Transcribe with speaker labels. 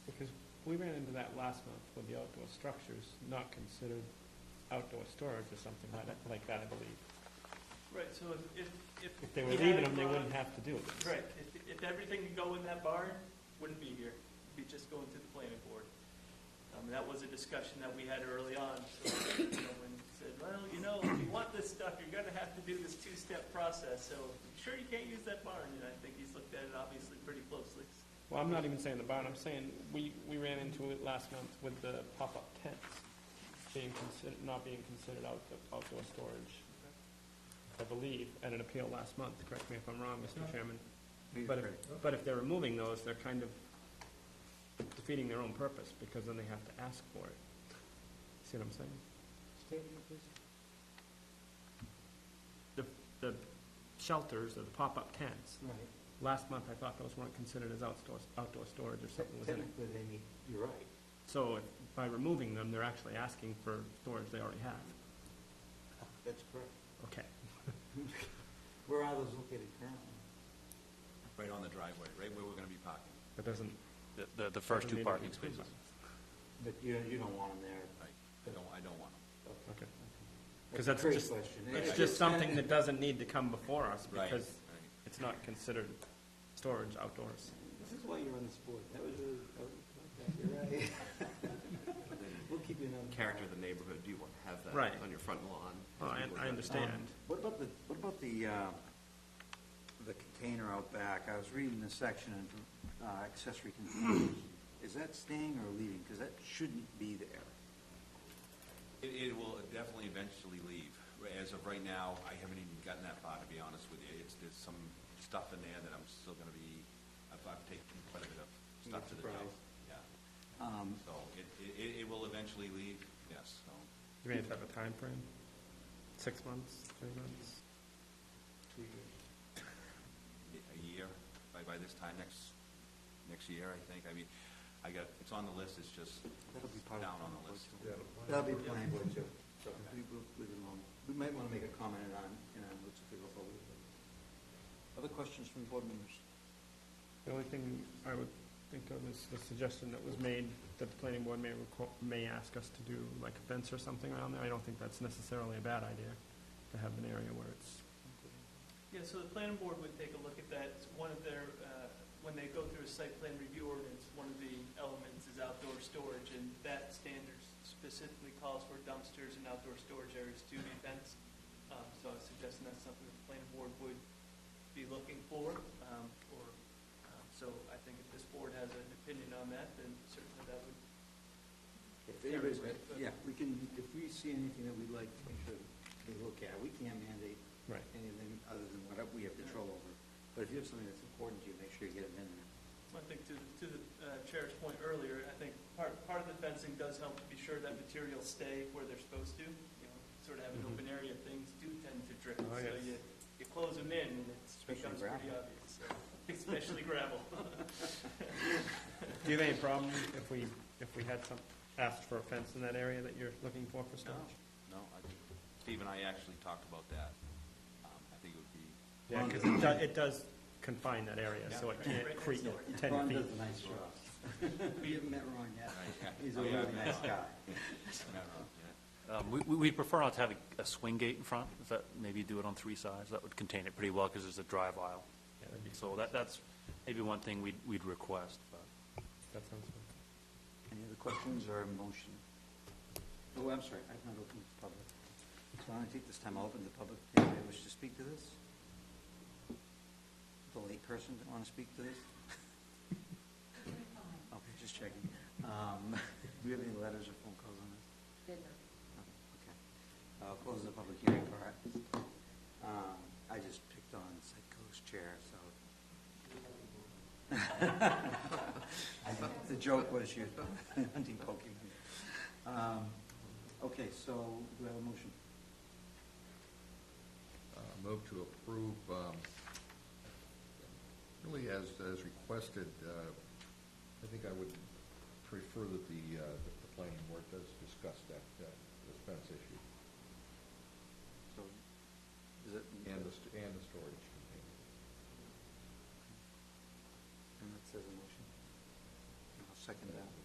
Speaker 1: We ran into that last month with the outdoor structures not considered outdoor storage or something like that, like that, I believe.
Speaker 2: Right, so if, if.
Speaker 1: If they were
Speaker 2: we had
Speaker 1: leaving
Speaker 2: a
Speaker 1: them, they
Speaker 2: barn-
Speaker 1: wouldn't have to do it.
Speaker 2: Right, if, if everything could go in that barn, wouldn't be here, It'd be just going to the planning board. Um, that was a discussion that we had early on, so, you know, when it said, well, you know, if you want this stuff, you're gonna have to do this two-step process, so I'm sure you can't use that barn, and I think he's looked at it obviously pretty closely.
Speaker 1: Well, I'm not even saying the barn, I'm saying, we, we ran into it last month with the pop-up tents being considered, not being considered outdoor, outdoor storage, I believe, at an appeal last month, correct me if I'm wrong, Mr. Chairman. But if, Oh, but if they're removing those, they're kind of defeating their own purpose, because then they have to ask for it. See what I'm saying? The, the shelters or the pop-up tents, last month I thought those weren't considered as outdoor, outdoor storage or something was in it.
Speaker 3: Technically, they need, you're right.
Speaker 1: So if- by removing them, they're actually asking for storage they already have.
Speaker 3: That's correct.
Speaker 1: Okay.
Speaker 3: Where are those located currently?
Speaker 4: Right on the driveway, right where we're gonna be parking.
Speaker 1: That doesn't.
Speaker 5: The- The, the first
Speaker 1: doesn't need to be
Speaker 5: two parking
Speaker 1: approved
Speaker 5: spaces.
Speaker 3: But you, you don't want them there.
Speaker 4: I, I don't, I don't want them.
Speaker 1: by- Okay. 'Cause
Speaker 3: That's a
Speaker 1: that's
Speaker 3: great
Speaker 1: just-
Speaker 3: question.
Speaker 1: It's just something that doesn't need to come before us
Speaker 4: Right,
Speaker 1: because
Speaker 4: right.
Speaker 1: it's not considered storage outdoors.
Speaker 3: This is why you're on this board. That was really, that was- okay, you're right. We'll keep you on.
Speaker 6: character of the neighborhood, do you want to have that
Speaker 1: Right.
Speaker 6: on your front lawn?
Speaker 1: Oh, I, I understand.
Speaker 3: um, What about the, what about the, uh, the container out back? I was reading this section on uh, accessory containers. Is that staying or leaving? Because that shouldn't be there.
Speaker 4: It, it will definitely eventually leave. As of right now, I haven't even gotten that far, to be honest with you. It's, there's some stuff in there that I'm still gonna be, I've, I've taken quite a bit of stuff to the job.
Speaker 3: Surprise.
Speaker 4: Yeah,
Speaker 3: Um,
Speaker 4: so it, it- it, it will eventually leave, yes, so.
Speaker 1: You may have to have a time frame. Six months, three months.
Speaker 4: a year, by, by this time next, next year, I think. I mean, I got, it's on the list, it's just
Speaker 3: That'll be part of.
Speaker 4: down on the list.
Speaker 3: That'll be planning board too. So we, we'll leave it alone. We might want to make a comment on, and on what's to go forward. Other questions from board members?
Speaker 1: The only thing I would think of is the suggestion that was made, that the planning board may requ may ask us to do like a fence or something around there. I don't think that's necessarily a bad idea, to have an area where it's,
Speaker 2: Yeah, so the planning board would take a look at that. It's one of their, uh, when they go through a site plan review ordinance, one of the elements is outdoor storage, and that standard specifically calls for dumpsters and outdoor storage areas to be fenced. Um, So I was suggesting that's something that the planning board would be looking for, um, or, um, so I think if this board has an opinion on that, then certainly that would
Speaker 3: If anybody's got, yeah, we can, if we see anything that we'd like to make sure they look at, we can't mandate
Speaker 1: right.
Speaker 3: anything other than what we have control over. But if you have something that's important to you, make sure you get it in there.
Speaker 2: I think to, to the uh, chair's point earlier, I think part, part of the fencing does help to be sure that materials stay where they're supposed to. You know, sort of have an
Speaker 1: Mhm.
Speaker 2: open area, things do tend to drip.
Speaker 1: Oh,
Speaker 2: So
Speaker 1: yes.
Speaker 2: you, you close them in and it
Speaker 3: Especially
Speaker 2: becomes pretty
Speaker 3: gravel.
Speaker 2: obvious, so, especially gravel.
Speaker 1: Do you have any problem if we, if we had some, asked for a fence in that area that you're looking for for storage?
Speaker 4: No, I, Steve and I actually talked about that. Um, I think it would be,
Speaker 1: Yeah, because it does, it does confine that area, so it
Speaker 2: Yeah.
Speaker 1: can't creep
Speaker 2: Right next
Speaker 1: ten
Speaker 3: Ron
Speaker 1: feet.
Speaker 3: does a nice job. We haven't met Ron yet.
Speaker 4: right, yeah.
Speaker 3: He's a
Speaker 4: Oh, yeah,
Speaker 3: really
Speaker 4: yeah,
Speaker 3: nice guy.
Speaker 4: yeah, no, yeah.
Speaker 5: Um, we- We, we prefer not to have a- a swing gate in front, if that, maybe do it on three sides, that would contain it pretty well, because there's a drive aisle.
Speaker 1: Yeah, that'd be-
Speaker 5: So that, that's maybe one thing we'd, we'd request, but.
Speaker 1: That sounds good.
Speaker 3: Any other questions or a motion? Oh, I'm sorry, I've not opened the public. So I take this time, I'll open the public, anybody wish to speak to this? The late person that want to speak to this? Okay, just checking. Um, Do we have any letters or phone calls on this? No, Okay. I'll close the public hearing part. Um, I just picked on Psycho's chair, so. I think The joke was you hunting Pokemon. Um, Okay, so do I have a motion?
Speaker 7: Uh, Move to approve, um, really as, as requested, uh, I think I would prefer that the, uh, that the planning board does discuss that, uh, the fence issue
Speaker 3: So, is it?
Speaker 7: and the, st- and the